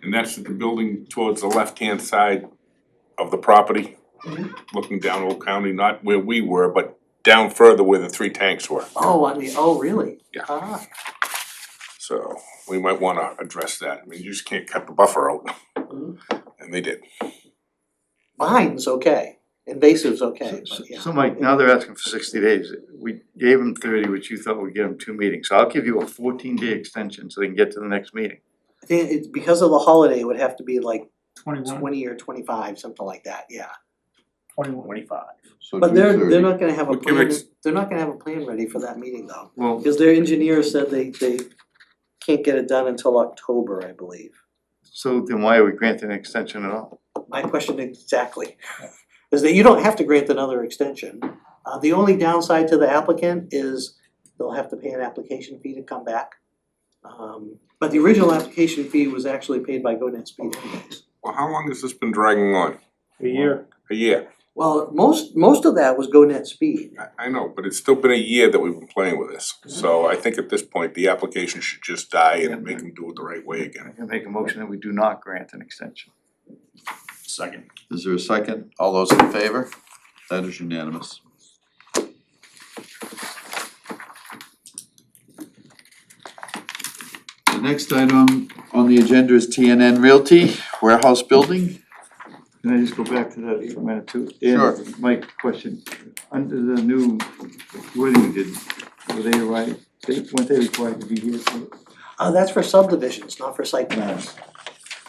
And that's the building towards the left-hand side of the property, looking down Old County, not where we were, but down further where the three tanks were. Oh, I mean, oh, really? Yeah. Ah, So we might wanna address that. I mean, you just can't cut the buffer out. Mm-hmm. Mhm. And they did. mine's okay, invasive's okay, So- but yeah. So Mike, now they're asking for sixty days, we gave them thirty, which you thought would get them two meetings, so I'll give you a fourteen day extension so they can get to the next meeting. I think it's because of the holiday, it would have to be like Twenty-one, twenty or twenty-five, something like that, yeah. twenty-one, twenty-five. So But June they're, they're 30. not gonna have a We'll give plan, ex- they're not gonna have a plan ready for that meeting though. Well, Because their engineer said they, they can't get it done until October, I believe. so then why are we granting an extension at all? My question exactly is that you don't have to grant another extension. Uh, the only downside to the applicant is they'll have to pay an application fee to come back. Um, but the original application fee was actually paid by GoNet Speed anyways. Well, how long has this been dragging on? A year. A year? Well, most, most of that was GoNet Speed. I, I know, but it's still been a year that we've been playing with this. So I think at this point, the application should just die and make them do it the right way I again. can make a motion that we do not grant an extension. Second. Is there a second? All those in favor? That is unanimous. The next item on the agenda is TNN Realty Warehouse Building. Can I just go back to that for a minute too? Dan, Sure. Mike, question, under the new wording we did, were they right, they, weren't they required to be here for? Uh, that's for subdivisions, not for site plans.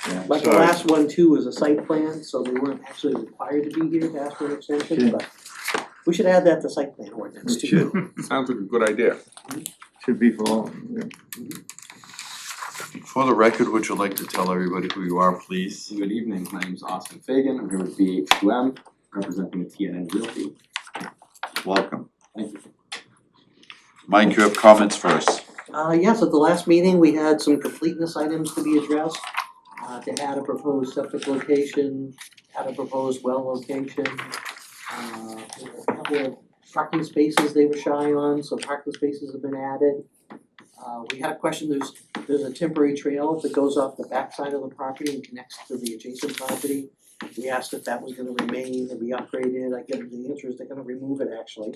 Yeah, Like the sorry. last one too was a site plan, so they weren't actually required to be here to ask for an extension, Okay. but we should add that to site plan ordinance We too. Sounds like a good idea. Should be for all, yeah. For the record, would you like to tell everybody who you are, please? Good evening, my name is Austin Fagan, I'm here with BH2M, representing TNN Realty. Welcome. Thank you. Mike, you have comments for us. Uh, yes, at the last meeting, we had some completeness items to be addressed, uh, to add a proposed septic location, add a proposed well location. Uh, there were a couple of parking spaces they were shy on, so parking spaces have been added. Uh, we had a question, there's, there's a temporary trail that goes off the backside of the property and connects to the adjacent property. We asked if that was gonna remain and be upgraded, I give them the answer is they're gonna remove it actually.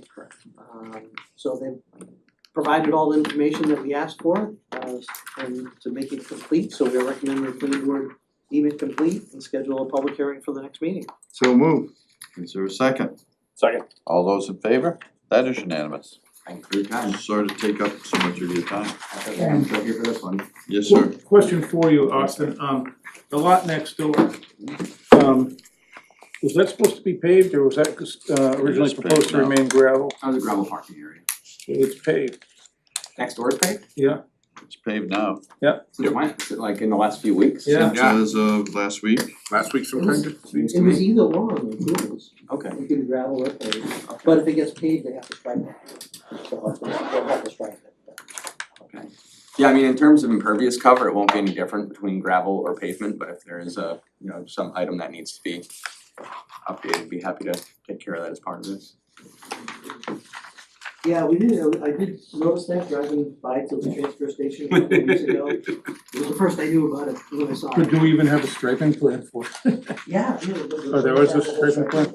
Um, so they provided all the information that we asked for, uh, and to make it complete, so we recommend the planning board deem it complete and schedule a public hearing for the next meeting. So move, Is there a second? Second. All those in favor? That is unanimous. Thank you for your I'm time. sorry to take up so much of your time. I thought you were here for this one. Yes, sir. Question for you, Austin, um, the lot next door, um, was that supposed to be paved, or was that, uh, originally paved proposed to now. remain gravel? That was a gravel parking area. It's paved, Next door is paved, yeah, It's paved now. since when, Is it like in the last few weeks? Yeah. As of last week. Last week sometime, it seems to It was me. either one, it was, Okay, it could gravel or paved, but if it gets paved, they have to strike it. They'll have to, they'll have to strike it. okay. Yeah, I mean, in terms of impervious cover, it won't be any different between gravel or pavement, but if there is a, you know, some item that needs to be updated, be happy to take care of that as part of this. Yeah, we did, uh, I did notice that driving by to the transfer station a couple weeks ago, it was the first I knew about it, when I saw but it. do we even have a striping plan for it? Yeah, yeah, it was- Oh, there was a striping plan?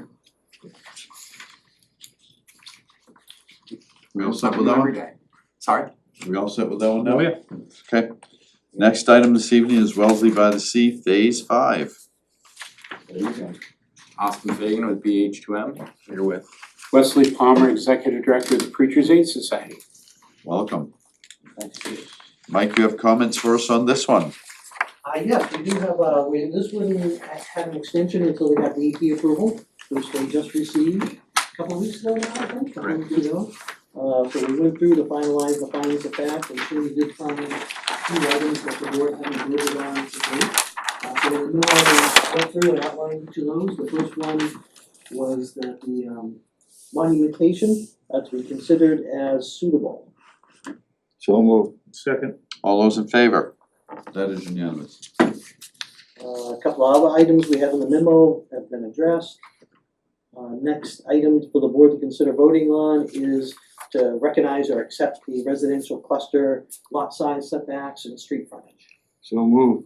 Yeah. We all set with that one? Every day. Sorry? We all set with that one now? Oh, yeah. Okay. Next item this evening is Wellesley by the Sea, Phase Five. Austin Fagan with BH2M, here with Wesley Palmer, Executive Director of the Preachers Aid Society. Welcome. Mike, you have comments for us on this one? Uh, yes, we do have, uh, we, this one had an extension until they got the EP approval, which they just received a couple weeks ago now, I think, a couple weeks ago. Uh, so we went through to finalize the findings of fact, and sure we did find two items that the board hadn't voted on to date. Uh, so the new item, went through and outlined each of those, the first one was that the, um, monumentation, uh, to be considered as suitable. so move. Second, All those in favor? That is unanimous. Uh, A couple of other items we have in the memo have been addressed. Uh, Next item for the board to consider voting on is to recognize or accept the residential cluster lot size setbacks and street frontage. So move.